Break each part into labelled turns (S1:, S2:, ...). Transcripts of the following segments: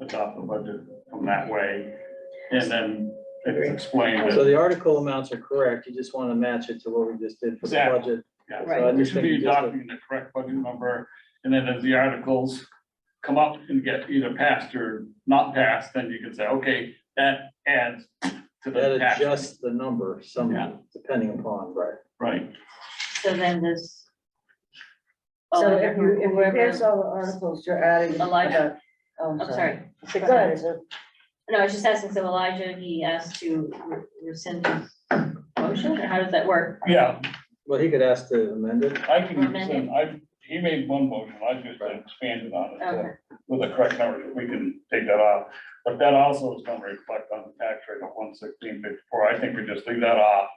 S1: adopt the budget from that way, and then explain
S2: So
S1: that.
S2: the article amounts are correct, you just want to match it to what we just did for the
S1: Exactly.
S2: budget.
S1: yeah,
S2: Right.
S1: We should be adopting the correct budget number, and then as the articles come up and get either passed or not passed, then you can say, okay, that adds to the
S2: That
S1: tax.
S2: adjusts the number
S1: Yeah.
S2: some, depending upon, right?
S1: Right,
S3: So then this.
S4: So if you, if you
S3: Whoever-
S4: here's all the articles you're adding. uh,
S3: Elijah.
S4: Oh,
S3: I'm sorry.
S4: Go ahead, is it-
S3: No, I was just asking, so Elijah, he asked to re- rescind his motion, or how does that work?
S1: yeah,
S2: Well, he could ask to amend it.
S1: I can,
S3: Amend it.
S1: rescind. I, he made one motion, I just expanded on it.
S3: Okay,
S1: with the correct number, we can take that off. But that also is gonna reflect on the tax rate of one sixteen fifty-four. I think we just leave that off.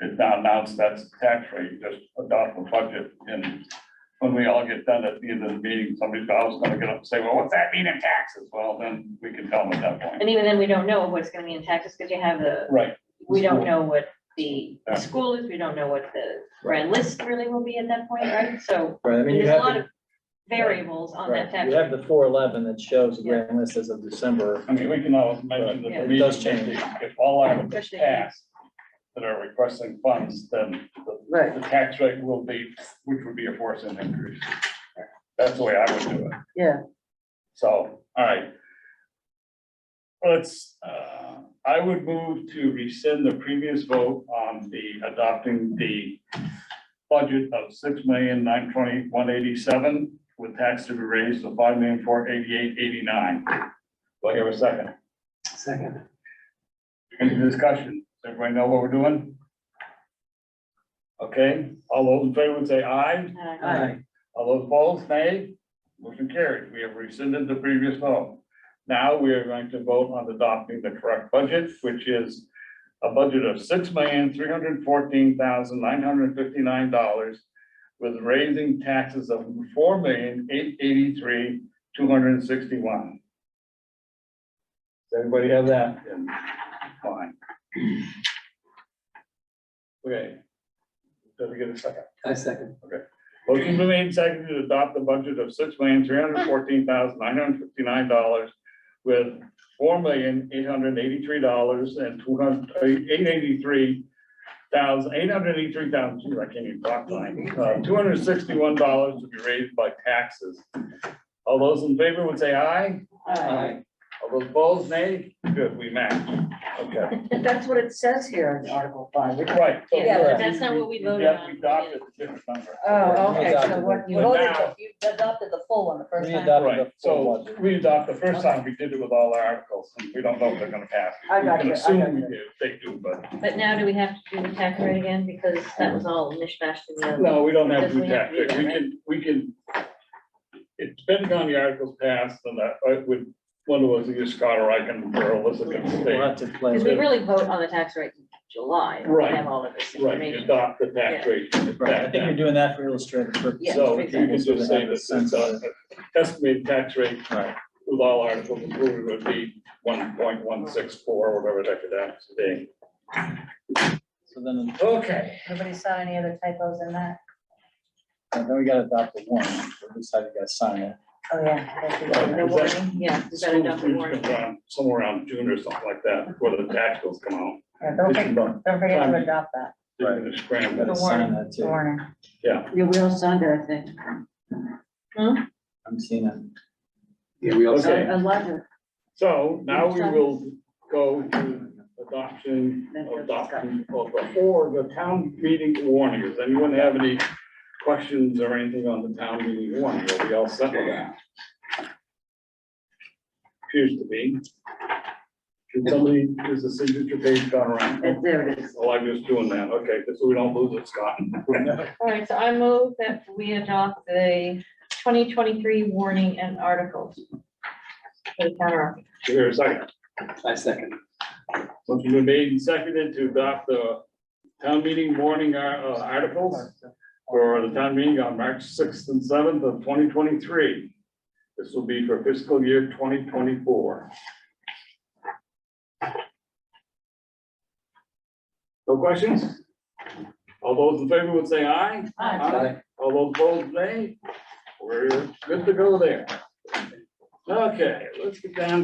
S1: It's not announced that's the tax rate, just adopt the budget and when we all get done at the end of the meeting, somebody's always gonna get up and say, well, what's that mean in taxes? Well, then we can tell them at that point.
S3: and even then, we don't know what's gonna be in taxes, because you have the,
S1: Right,
S3: we don't know what the
S1: Yeah.
S3: school is, we don't know what the grand list really will be at that point, right? So
S2: Right, I mean, you
S3: there's a
S2: have,
S3: lot
S2: the-
S3: of variables on that
S2: right,
S3: tax.
S2: you have the four eleven that shows the
S3: Yeah.
S2: grand list as of December.
S1: I mean, we can always mention that
S3: Yeah.
S1: the
S2: It
S1: meeting,
S2: does change.
S1: if if all items
S3: Especially-
S1: pass that are requesting funds, then the
S4: Right,
S1: the tax rate will be, which would be a four cent increase. That's the way I would do it.
S4: yeah,
S1: So, all right. Let's, uh, I would move to rescind the previous vote on the adopting the budget of six million nine twenty one eighty-seven with tax to be raised to five million four eighty-eight eighty-nine. Do I hear a second?
S5: Second.
S1: Any discussion? Does everybody know what we're doing? Okay, all those in favor would say aye.
S3: Uh,
S4: Aye.
S1: All those opposed, nay? Motion carried. We have rescinded the previous vote. Now we are going to vote on adopting the correct budget, which is a budget of six million, three hundred fourteen thousand, nine hundred fifty-nine dollars with raising taxes of four million, eight eighty-three, two hundred and sixty-one. Does everybody have that? Fine. Okay. Did we get a second?
S5: I second.
S1: Motion been made and seconded to adopt the budget of six million, three hundred fourteen thousand, nine hundred fifty-nine dollars with four million, eight hundred eighty-three dollars and two hundred, eight eighty-three thousand, eight hundred eighty-three thousand, geez, I can't even talk tonight, uh, two hundred sixty-one dollars to be raised by taxes. All those in favor would say aye.
S5: Aye.
S1: All those opposed, nay. Good, we match. Okay,
S4: But that's what it says here in Article Five. which-
S1: right. so-
S3: Yeah,
S2: but
S3: that's not what we voted
S1: Yeah,
S3: on.
S1: We adopted the different number.
S4: Oh, okay, so what you
S1: But
S4: voted,
S1: now-
S4: you adopted the full one the first
S2: We
S4: time.
S2: adopted
S1: Right,
S2: the full
S1: so
S2: budget.
S1: we adopt, the first time we did it with all our articles, and we don't know if they're gonna pass.
S4: I
S1: We
S4: got
S1: can
S4: you, I
S1: assume
S4: got
S1: we
S4: you.
S1: do, They do, but,
S3: But now do we have to do the tax rate again, because that was all mishmashed in the other.
S1: no, we don't have to
S3: Doesn't
S1: do
S3: have
S1: that,
S3: to do
S1: we
S3: that, right?
S1: can, we can. It depends on the articles passed, and that, I would, one of us, either Scott or I can, or Alyssa can
S2: We'll
S1: say,
S2: have to play
S3: Because
S2: with it.
S3: we really vote on the tax rate in July, we
S1: Right.
S3: have all of this
S1: right,
S3: information.
S1: adopt the tax rate.
S2: Right, I think you're doing that for illustrative
S3: Yeah,
S2: purposes.
S1: So
S3: we
S1: you can just say this is uh, estimated tax rate
S2: Right.
S1: with all articles included would be one point one six four, whatever that could add today.
S2: So then,
S1: Okay.
S4: Anybody saw any other typos in that?
S2: then we gotta adopt the one, at least I gotta sign it.
S4: Oh, yeah.
S1: Right,
S4: that's it.
S3: The
S1: is that-
S3: warning, yeah, is that
S1: School
S3: enough
S1: fees
S3: warning?
S1: comes around Somewhere around June or something like that, before the tax bills come out.
S4: Yeah, Don't
S1: It's
S4: forget,
S1: about-
S4: don't forget to adopt that
S1: they're gonna
S2: I
S1: scramble.
S2: gotta sign that too.
S4: warning.
S1: Yeah,
S4: You will sign it, I think.
S2: I'm seeing it.
S5: Yeah, we all
S1: Okay.
S5: second.
S3: Uh,
S4: Elijah.
S1: so now we will go to adoption,
S2: Oh,
S1: adoption of the, or the town meeting warning. Does anyone have any questions or anything on the town meeting warning? Are we all set with that? Appears to be. Can somebody, is the signature page gone around?
S4: There it is.
S1: Well, I'm just doing that, okay, so we don't lose it, Scott.
S3: All right, so I move that we adopt the twenty twenty-three warning and articles. for the town office.
S1: Here, a second.
S5: I second.
S1: Motion been made and seconded to adopt the town meeting warning ar- uh, articles for the town meeting on March sixth and seventh of twenty twenty-three. This will be for fiscal year twenty twenty-four. No questions? All those in favor would say aye. All those opposed, nay. We're good to go there. Okay, let's get down